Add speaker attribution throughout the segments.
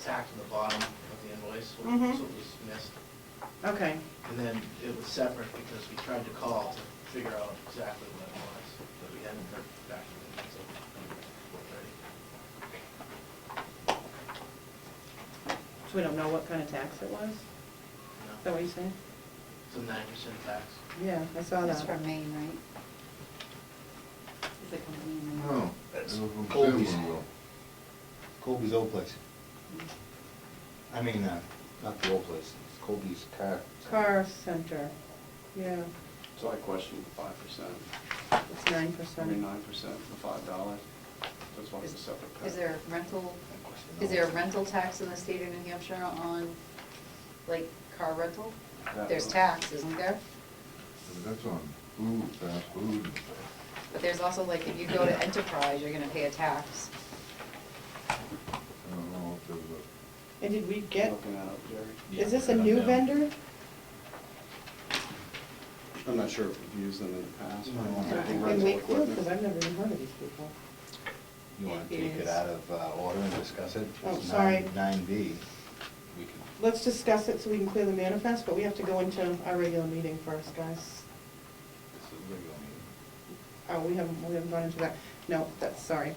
Speaker 1: tacked to uh, the bottom of the invoice, so so it
Speaker 2: Mhm.
Speaker 1: was missed.
Speaker 2: Okay,
Speaker 1: And then it was separate because we tried to call to figure out exactly what it was, but we hadn't heard back from them until four thirty.
Speaker 2: so we don't know what kind of tax it was? Is that
Speaker 1: No,
Speaker 2: what you're saying?
Speaker 1: it's a nine percent tax.
Speaker 2: Yeah, I saw
Speaker 3: That's
Speaker 2: that.
Speaker 3: from Maine, right? Is it company in Maine?
Speaker 4: No.
Speaker 5: That's
Speaker 4: it was from
Speaker 5: Colby's.
Speaker 4: Silverwell.
Speaker 5: Colby's old place. I mean, uh, not the old place, it's Colby's car.
Speaker 2: Car center, yeah,
Speaker 6: So I questioned the five percent,
Speaker 2: it's nine
Speaker 6: I mean,
Speaker 2: percent.
Speaker 6: nine percent for five dollars, that's why it's a separate
Speaker 3: Is
Speaker 6: pay.
Speaker 3: there a rental, is there a rental tax in the state of New Hampshire on, like, car rental?
Speaker 6: That
Speaker 3: There's
Speaker 6: one.
Speaker 3: tax, isn't there?
Speaker 4: That's on food, fast food and stuff.
Speaker 3: But there's also, like, if you go to Enterprise, you're gonna pay a tax.
Speaker 4: I don't know if there's a,
Speaker 2: And did we get,
Speaker 6: Looking that up, Jerry.
Speaker 2: is this a new vendor?
Speaker 6: I'm not sure if we've used them in the past.
Speaker 5: No.
Speaker 6: I think
Speaker 2: In
Speaker 6: rental
Speaker 2: Wakefield,
Speaker 6: equipment-
Speaker 2: because I've never even heard of these people.
Speaker 5: You wanna
Speaker 3: It
Speaker 5: take it
Speaker 3: is.
Speaker 5: out of uh, order and discuss it?
Speaker 2: Oh,
Speaker 5: It's
Speaker 2: sorry.
Speaker 5: Nine B, we can,
Speaker 2: Let's discuss it so we can clear the manifest, but we have to go into our regular meeting first, guys.
Speaker 5: this is regular meeting.
Speaker 2: Oh, we haven't, we haven't gone into that. No, that's, sorry.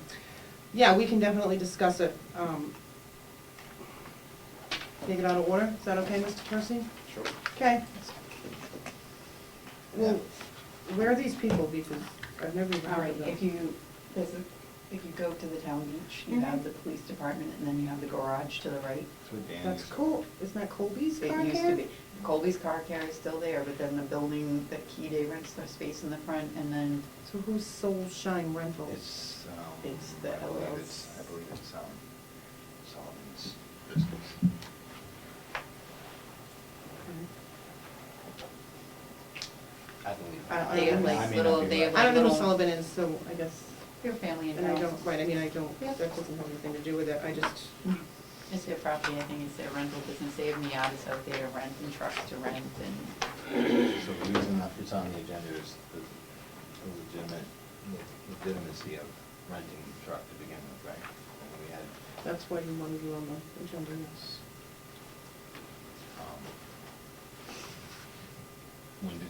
Speaker 2: Yeah, we can definitely discuss it. um, Take it out of order. Is that okay, Mr. Percy?
Speaker 6: Sure.
Speaker 2: Okay. Well, where are these people? Because I've never even
Speaker 7: All
Speaker 2: heard
Speaker 7: right,
Speaker 2: of them.
Speaker 7: if you, there's a, if you go to the town beach, you have
Speaker 2: Mhm.
Speaker 7: the police department, and then you have the garage to the right.
Speaker 5: It's with Danny's.
Speaker 2: That's cool. Isn't that Colby's car
Speaker 7: It used to
Speaker 2: care?
Speaker 7: be, Colby's car care is still there, but then the building, the key day rents their space in the front, and then,
Speaker 2: So who's Soul Shine Rentals?
Speaker 5: It's, um.
Speaker 7: It's the
Speaker 5: I believe
Speaker 7: LLC.
Speaker 5: it's- I believe it's, um, Solomon's business. I believe.
Speaker 2: I- I
Speaker 5: I
Speaker 3: They have
Speaker 5: mean, I
Speaker 3: like
Speaker 5: may
Speaker 3: little,
Speaker 5: not be
Speaker 3: they have
Speaker 5: right.
Speaker 2: I
Speaker 3: like
Speaker 2: don't know
Speaker 3: little.
Speaker 2: who Sullivan is, so I guess,
Speaker 3: Your family and
Speaker 2: and I
Speaker 3: house.
Speaker 2: don't, right, I mean, I don't, that doesn't have anything to do with it. I just,
Speaker 7: it's their property, I think it's their rental business, they have Miatas out there to rent and trucks to rent, and
Speaker 5: So the reason that it's on the agenda is the the legitimate, legitimacy of renting the truck to begin with, right? And we had,
Speaker 2: that's why you wanted you on the agenda, yes.
Speaker 5: um, when did,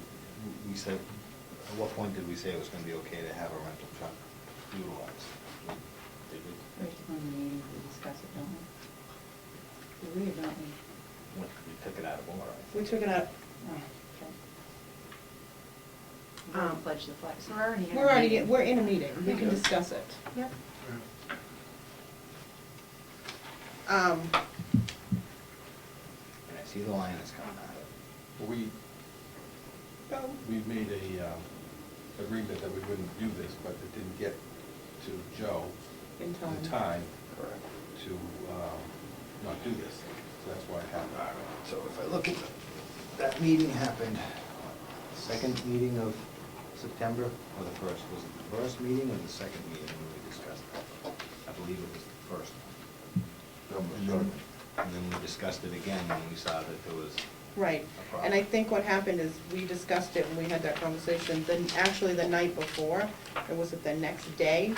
Speaker 5: we said, at what point did we say it was gonna be okay to have a rental truck utilized? Did we?
Speaker 7: right to the meeting, we discuss it, don't we? Do we or don't we?
Speaker 5: When we took it out of order, I
Speaker 2: We
Speaker 5: think.
Speaker 2: took it out,
Speaker 7: Oh, okay. We're gonna
Speaker 2: Um,
Speaker 7: pledge the flag, so we're already. in a
Speaker 2: we're already,
Speaker 7: meeting.
Speaker 2: we're in a meeting, we can discuss it. Yep. Um,
Speaker 5: And I see the line is coming out of it.
Speaker 8: We, we made a um, agreement that we wouldn't do this, but it didn't get to Joe
Speaker 2: in time.
Speaker 8: in time
Speaker 6: Correct.
Speaker 8: to um, not do this. So that's why it happened.
Speaker 5: So if I look at, that meeting happened, second meeting of September, or the first, was it the first meeting or the second meeting when we discussed that? I believe it was the first. And then- And then we discussed it again when we saw that there was,
Speaker 2: Right,
Speaker 5: A problem.
Speaker 2: and I think what happened is, we discussed it when we had that conversation, then, actually the night before, or was it the next day?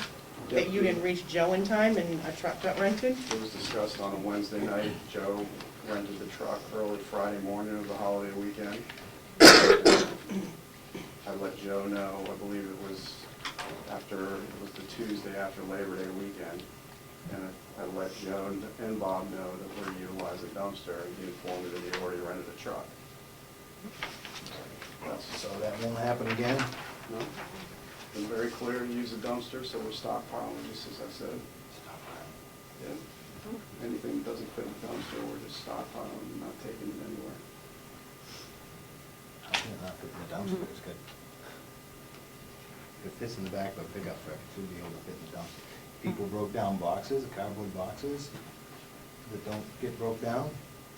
Speaker 2: That you didn't reach Joe in time and a truck got rented?
Speaker 6: It was discussed on a Wednesday night, Joe rented the truck early Friday morning of the holiday weekend. I let Joe know, I believe it was after, it was the Tuesday after Labor Day weekend, and I let Joe and- and Bob know that we're utilizing the dumpster, and he informed me that he already rented a truck.
Speaker 5: so that won't happen again?
Speaker 6: No? Been very clear to use the dumpster, so we're stockpiling, just as I said. Yeah. Anything that doesn't fit in the dumpster, we're just stockpiling and not taking it anywhere.
Speaker 5: I think not putting the dumpster, it's good. It fits in the back of a pickup truck, it should be able to fit in the dumpster. People broke down boxes, cardboard boxes, that don't get broke down,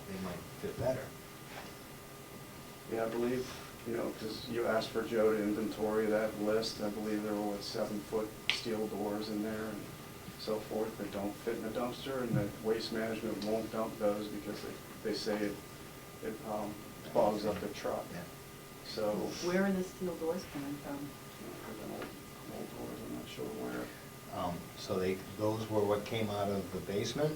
Speaker 5: they might fit better.
Speaker 6: Yeah, I believe, you know, because you asked for Joe to inventory that list, I believe there were what, seven-foot steel doors in there and so forth that don't fit in a dumpster, and that Waste Management won't dump those because they, they say it, it um, bogs up the truck.
Speaker 5: Yeah.
Speaker 6: So, you know,
Speaker 7: Where are the steel doors coming from?
Speaker 6: they're old, old doors, I'm not sure where.
Speaker 5: Um, So they, those were what came out of the basement?